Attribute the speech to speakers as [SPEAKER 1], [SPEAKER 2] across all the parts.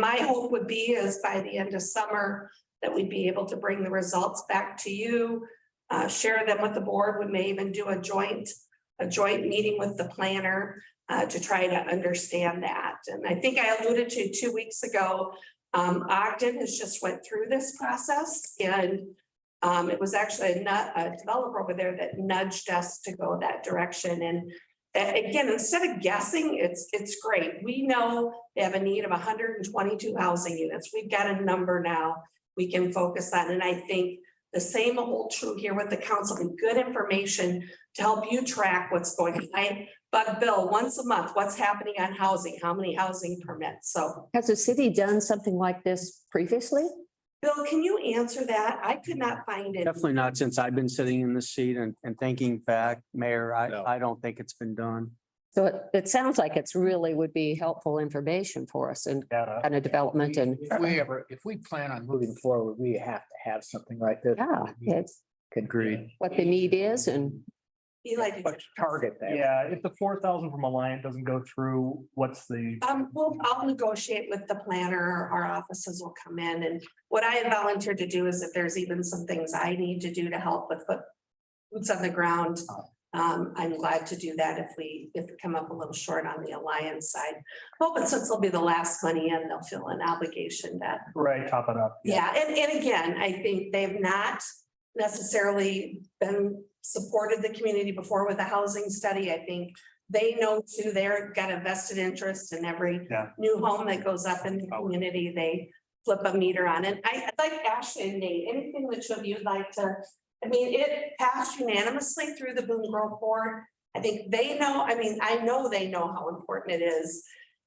[SPEAKER 1] My hope would be is by the end of summer that we'd be able to bring the results back to you. uh, share them with the board. We may even do a joint, a joint meeting with the planner uh, to try to understand that. And I think I alluded to two weeks ago, um, Ogden has just went through this process and um, it was actually a nu- a developer over there that nudged us to go that direction and a- again, instead of guessing, it's, it's great. We know they have a need of hundred and twenty-two housing units. We've got a number now we can focus on. And I think the same will hold true here with the council, and good information to help you track what's going on. I bug Bill once a month, what's happening on housing, how many housing permits? So
[SPEAKER 2] Has the city done something like this previously?
[SPEAKER 1] Bill, can you answer that? I could not find it.
[SPEAKER 3] Definitely not since I've been sitting in this seat and, and thinking back, Mayor,
[SPEAKER 4] No.
[SPEAKER 3] I, I don't think it's been done.
[SPEAKER 2] So it, it sounds like it's really would be helpful information for us and
[SPEAKER 5] data.
[SPEAKER 2] kind of development and,
[SPEAKER 5] If we ever, if we plan on moving forward, we have to have something like this.
[SPEAKER 2] yeah, it's
[SPEAKER 3] Agreed.
[SPEAKER 2] what the need is and
[SPEAKER 1] Be like,
[SPEAKER 5] But Target that.
[SPEAKER 6] Yeah, if the four thousand from Alliant doesn't go through, what's the?
[SPEAKER 1] Um, well, I'll negotiate with the planner, our offices will come in, and what I have volunteered to do is if there's even some things I need to do to help with the boots on the ground, um, I'm glad to do that if we, if we come up a little short on the alliance side. Well, but since it'll be the last money in, they'll feel an obligation to
[SPEAKER 6] Right, top it up.
[SPEAKER 1] yeah, and, and again, I think they've not necessarily been supported the community before with a housing study. I think they know too, they're got a vested interest in every
[SPEAKER 6] Yeah. Oh.
[SPEAKER 1] new home that goes up in the community, they flip a meter on it. I, I'd like Ashley and Nate, anything that you of you'd like to, I mean, it passed unanimously through the Boone Grove Board. I think they know, I mean, I know they know how important it is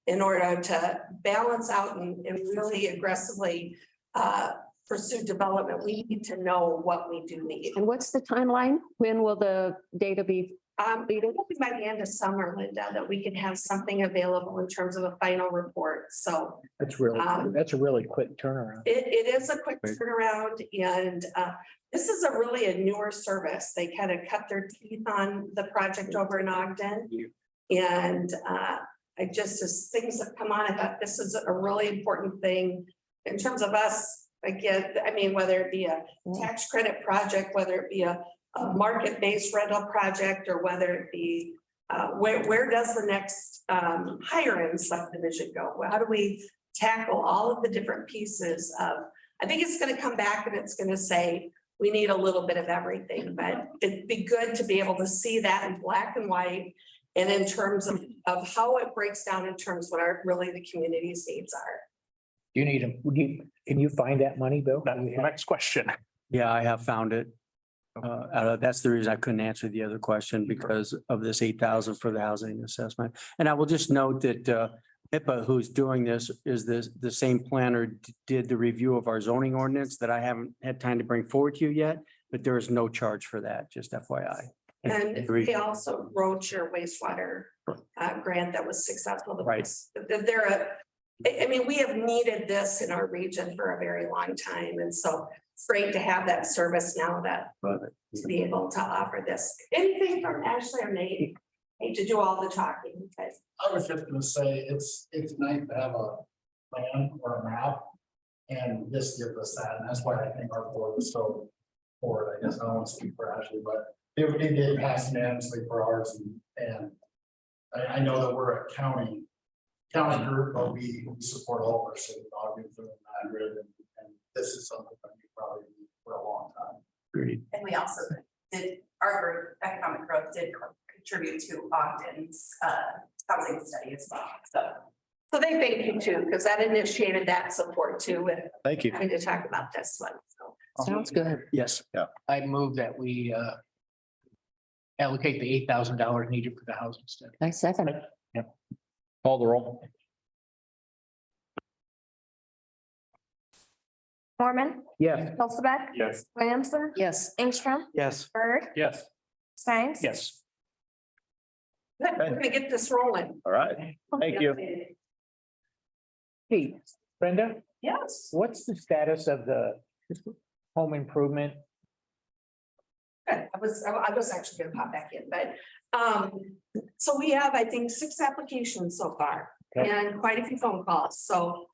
[SPEAKER 1] in order to balance out and, and really aggressively uh, pursue development, we need to know what we do need.
[SPEAKER 2] And what's the timeline? When will the data be?
[SPEAKER 1] Um, we don't think by the end of summer, Linda, that we can have something available in terms of a final report. So
[SPEAKER 5] That's really,
[SPEAKER 1] Um,
[SPEAKER 5] that's a really quick turnaround.
[SPEAKER 1] it, it is a quick turnaround and, uh, this is a really a newer service. They kind of cut their teeth on the project over in Ogden. And, uh, I just, as things have come on, I thought this is a really important thing in terms of us, again, I mean, whether it be a tax credit project, whether it be a, a market-based rental project, or whether it be, uh, where, where does the next, um, higher end subdivision go? Well, How do we tackle all of the different pieces of, I think it's gonna come back and it's gonna say, we need a little bit of everything, but it'd be good to be able to see that in black and white. And in terms of, of how it breaks down in terms of what our, really the community's needs are.
[SPEAKER 5] Do You need them, you, can you find that money, Bill?
[SPEAKER 6] That's the next question.
[SPEAKER 3] Yeah, I have found it. Uh, uh, that's the reason I couldn't answer the other question because of this eight thousand for the housing assessment. And I will just note that, uh, HIPAA, who's doing this, is this, the same planner d- did the review of our zoning ordinance that I haven't had time to bring forward to you yet, but there is no charge for that, just FYI.
[SPEAKER 1] And
[SPEAKER 3] Agreed.
[SPEAKER 1] they also wrote your wastewater uh grant that was successful. The-
[SPEAKER 3] Right.
[SPEAKER 1] the- They're a, I I mean, we have needed this in our region for a very long time, and so it's great to have that service now that to be able to offer this. Anything from Ashley or Nate? Hate to do all the talking, but
[SPEAKER 7] I was just gonna say, it's, it's nice to have a plan or a map. And this gives us that, and that's why I think our board was so forward, I guess, I don't want to speak for Ashley, but it would it did pass unanimously for ours and, and. I, I know that we're a county, county group, but we we support all of our city, Ogden, Boone, Madrid, and, and this is something that we probably need for a long time.
[SPEAKER 3] Agreed.
[SPEAKER 8] And we also did, our group, Economic Growth, did contribute to Ogden's uh housing study as well, so.
[SPEAKER 1] so they thank you too, because that initiated that support too with
[SPEAKER 4] Thank you.
[SPEAKER 1] having to talk about this one. So
[SPEAKER 2] Sounds good.
[SPEAKER 3] Yes.
[SPEAKER 5] I move that we uh allocate the eight thousand dollars needed for the housing study.
[SPEAKER 2] I second. it.
[SPEAKER 4] Call the roll.
[SPEAKER 9] Mormon,
[SPEAKER 5] Yes.
[SPEAKER 9] Hulseth,
[SPEAKER 6] Yes.
[SPEAKER 9] Williamson,
[SPEAKER 2] Yes.
[SPEAKER 9] Ingstrom,
[SPEAKER 3] Yes.
[SPEAKER 9] Bird,
[SPEAKER 6] Yes.
[SPEAKER 9] Steins.
[SPEAKER 6] Yes.
[SPEAKER 1] good, we're gonna get this rolling.
[SPEAKER 4] All right. Thank you.
[SPEAKER 5] Hey, Brenda,
[SPEAKER 8] Yes.
[SPEAKER 5] what's the status of the home improvement?
[SPEAKER 1] Good. I was, I I was actually gonna pop back in, but, um, so we have, I think, six applications so far
[SPEAKER 5] Okay.
[SPEAKER 1] and quite a few phone calls, so